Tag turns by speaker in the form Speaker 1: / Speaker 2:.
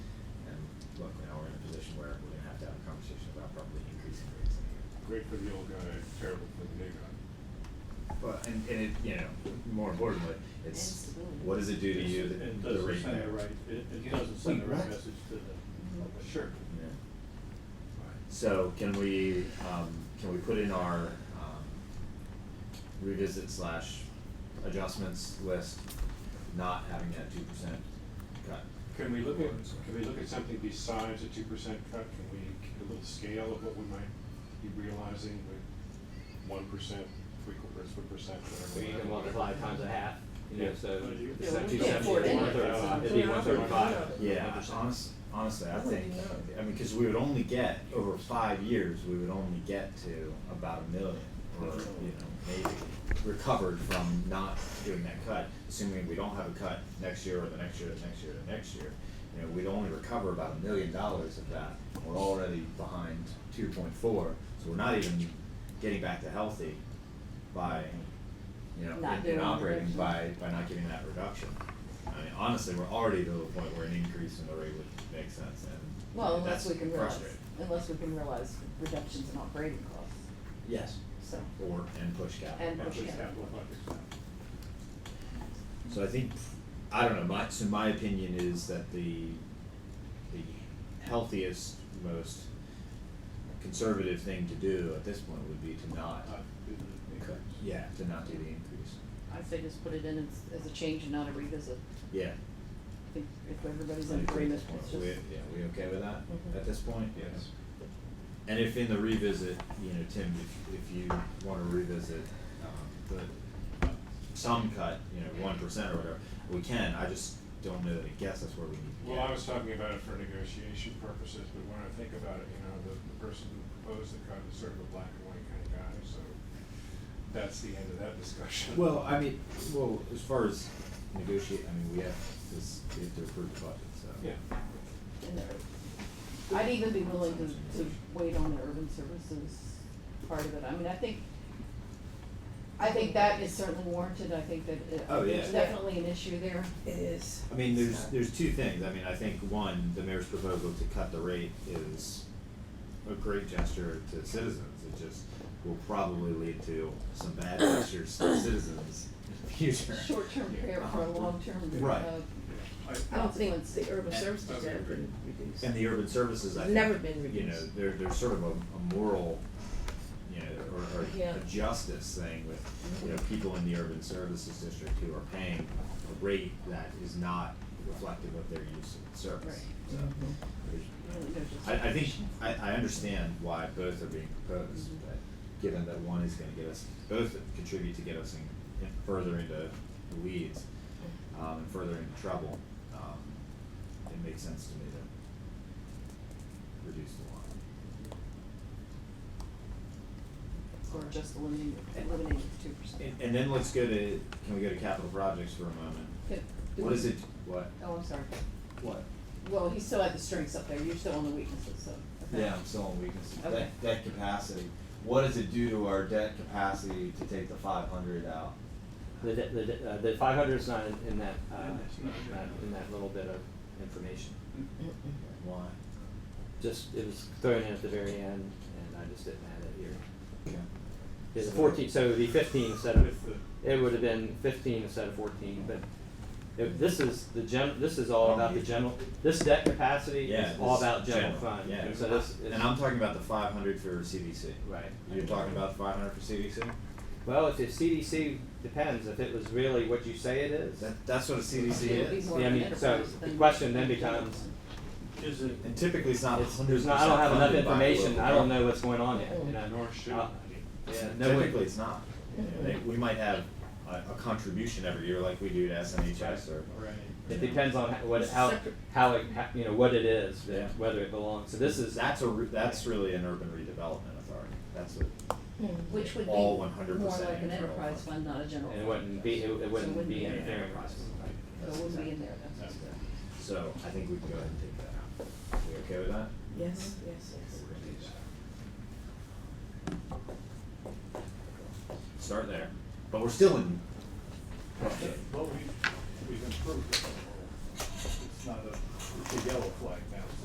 Speaker 1: great for the old guy, terrible for the new guy.
Speaker 2: Well, and, and it, you know, more importantly, it's, what does it do to you, the,
Speaker 3: It
Speaker 2: the
Speaker 3: doesn't
Speaker 2: rate
Speaker 3: send the
Speaker 2: there?
Speaker 3: right, it, it doesn't send the
Speaker 2: Wait,
Speaker 3: right
Speaker 2: what? Mm-hmm.
Speaker 3: message to the, sure.
Speaker 2: Yeah. So can we, um, can we put in our, um, revisit slash adjustments list, not having that two percent cut?
Speaker 1: Can we look at, can we look at something besides a two percent cut? Can we get a little scale of what we might be realizing with one percent, three quarters of a percent,
Speaker 4: So
Speaker 1: whatever?
Speaker 4: you
Speaker 1: that-
Speaker 4: can multiply times a half, you know, so
Speaker 3: Yeah.
Speaker 4: it's
Speaker 3: Yeah,
Speaker 4: seventy,
Speaker 3: we can't afford
Speaker 4: seventy,
Speaker 3: it.
Speaker 4: one thirty, it'd be one thirty-five.
Speaker 2: Yeah, honest, honestly, I think, I mean, cause we would only get, over five years, we would only get to about a million or, you know, maybe recovered from not doing that cut, assuming we don't have a cut next year or the next year, the next year, the next year. You know, we'd only recover about a million dollars of that, and we're already behind two point four, so we're not even getting back to healthy by, you know,
Speaker 5: Not
Speaker 2: in-
Speaker 5: doing
Speaker 2: in
Speaker 5: the
Speaker 2: operating
Speaker 5: reduction.
Speaker 2: by by not giving that reduction. I mean, honestly, we're already to the point where an increase in the rate would make sense, and
Speaker 5: Well,
Speaker 2: and
Speaker 5: unless
Speaker 2: that's
Speaker 5: we can realize,
Speaker 2: frustrating.
Speaker 5: unless we can realize reductions in operating costs,
Speaker 2: Yes.
Speaker 5: so.
Speaker 2: Or and push capital.
Speaker 5: And
Speaker 1: Actually,
Speaker 5: Yeah.
Speaker 1: capital budget.
Speaker 2: So I think I don't know. My so my opinion is that the the healthiest, most conservative thing to do at this point would be to not.
Speaker 1: Not do Uh, the increase.
Speaker 2: Yeah, to not do the increase.
Speaker 5: I'd say just put it in as, as a change and not a revisit,
Speaker 2: Yeah.
Speaker 5: I think if everybody's
Speaker 2: I
Speaker 5: in
Speaker 2: agree at
Speaker 5: agreement,
Speaker 2: this point.
Speaker 5: it's
Speaker 2: We,
Speaker 5: just,
Speaker 2: yeah, we okay with that
Speaker 5: Mhm.
Speaker 2: at this point?
Speaker 1: Yes.
Speaker 2: And if in the revisit, you know, Tim, if, if you wanna revisit, um, the, some cut, you know, one percent or whatever, we can, I just don't know that it gets us where we need to get.
Speaker 1: Well, I was talking about it for negotiation purposes, but when I think about it, you know, the, the person who proposed the cut is sort of a black and white kind of guy, so that's the end of that discussion.
Speaker 2: Well, I mean, well, as far as negotiate, I mean, we have this, we have to approve the budget, so.
Speaker 1: Yeah.
Speaker 5: in there. I'd even be willing to, to wait on the urban services part of it, I mean, I think, I think that is certainly warranted, I think that it,
Speaker 2: Oh, yeah.
Speaker 5: there's definitely an issue there.
Speaker 6: It is.
Speaker 2: I mean, there's,
Speaker 6: So-
Speaker 2: there's two things, I mean, I think, one, the mayor's proposal to cut the rate is a great gesture to citizens, it just will probably lead to some bad gestures to citizens in the future.
Speaker 5: Short-term care for a long-term,
Speaker 2: Right.
Speaker 5: uh,
Speaker 1: I,
Speaker 6: I don't think Oh, it's the urban services that have been reduced.
Speaker 2: And the urban services, I think,
Speaker 6: Never been
Speaker 2: you know,
Speaker 6: reduced.
Speaker 2: there, there's sort of a, a moral, you know, or, or
Speaker 6: Yeah.
Speaker 2: a justice thing with, you know, people in the urban services district who are paying a rate that is not reflective of their use of the service. So, there's-
Speaker 5: really, there's just-
Speaker 2: I, I think, I, I understand why both are being proposed, but given that one is gonna get us, both contribute to get us in, in further into the weeds, um, and further into trouble, um, it makes sense to me to reduce the one.
Speaker 5: Or just eliminating, eliminating two percent.
Speaker 2: And, and then let's go to, can we go to capital projects for a moment? What is it, what?
Speaker 5: Oh, I'm sorry.
Speaker 2: What?
Speaker 5: Well, he still had the strengths up there, you're still on the weaknesses, so. okay.
Speaker 2: Yeah, I'm still on weakness.
Speaker 5: Okay.
Speaker 2: Debt, debt capacity. What does it do to our debt capacity to take the five hundred out?
Speaker 4: The, de- the, de- uh, the five hundred is not in, in that, uh,
Speaker 3: Yeah, that's not-
Speaker 4: not in that little bit of information.
Speaker 2: Why?
Speaker 4: Just, it was thrown in at the very end, and I just didn't have it here.
Speaker 2: Okay.
Speaker 4: It's fourteen, so it would be fifteen instead of,
Speaker 3: With
Speaker 4: it would have been fifteen instead of fourteen, but if, this is the gen, this is all about the general, this debt capacity
Speaker 2: Yeah,
Speaker 4: is all
Speaker 2: this
Speaker 4: about general
Speaker 2: general,
Speaker 4: fund,
Speaker 2: yeah.
Speaker 4: and so this is.
Speaker 2: And I'm talking about the five hundred for CDC.
Speaker 4: Right.
Speaker 2: You're talking about five hundred for CDC?
Speaker 4: Well, if the CDC depends, if it was really what you say it is,
Speaker 2: That, that's what a CDC
Speaker 5: It would be
Speaker 2: is.
Speaker 5: more
Speaker 4: Yeah, I
Speaker 5: of an
Speaker 4: mean, so
Speaker 5: enterprise
Speaker 4: the
Speaker 5: than-
Speaker 4: question then becomes-
Speaker 3: the- Is it,
Speaker 2: And typically it's not
Speaker 4: it's,
Speaker 2: hundred
Speaker 4: there's
Speaker 2: percent
Speaker 4: not, I don't have enough
Speaker 2: funded by the
Speaker 4: information,
Speaker 2: local
Speaker 4: I don't
Speaker 2: government.
Speaker 4: know what's going on yet, you know?
Speaker 1: Nor should
Speaker 4: Uh,
Speaker 1: I.
Speaker 4: Yeah, no one-
Speaker 2: Typically, it's not. You know, they- We might have a, a contribution every year like we do to SNHS or.
Speaker 3: right,
Speaker 4: It depends on how- what,
Speaker 5: It's
Speaker 4: how,
Speaker 5: separate.
Speaker 4: how, it ha- you know, what it is,
Speaker 2: Yeah.
Speaker 4: that- whether it belongs, so this is.
Speaker 2: That's a, re- that's really an urban redevelopment authority. That's what.
Speaker 6: Hmm.
Speaker 5: Which would be
Speaker 2: All
Speaker 5: more
Speaker 2: 100%
Speaker 5: like an
Speaker 2: internal
Speaker 5: enterprise
Speaker 2: fund.
Speaker 5: fund, not a general.
Speaker 4: And it
Speaker 5: fund.
Speaker 4: wouldn't be, it it wouldn't
Speaker 5: wouldn't
Speaker 4: be
Speaker 5: be
Speaker 4: an
Speaker 5: in there.
Speaker 4: airing process.
Speaker 5: So it wouldn't be in there, that's.
Speaker 2: So I think we can go ahead and take that out. We okay with that?
Speaker 6: Yes, yes, yes.
Speaker 2: We're gonna do that. Start there, but we're still in.
Speaker 3: well, we, we've improved it. It's not a, it's a yellow flag now,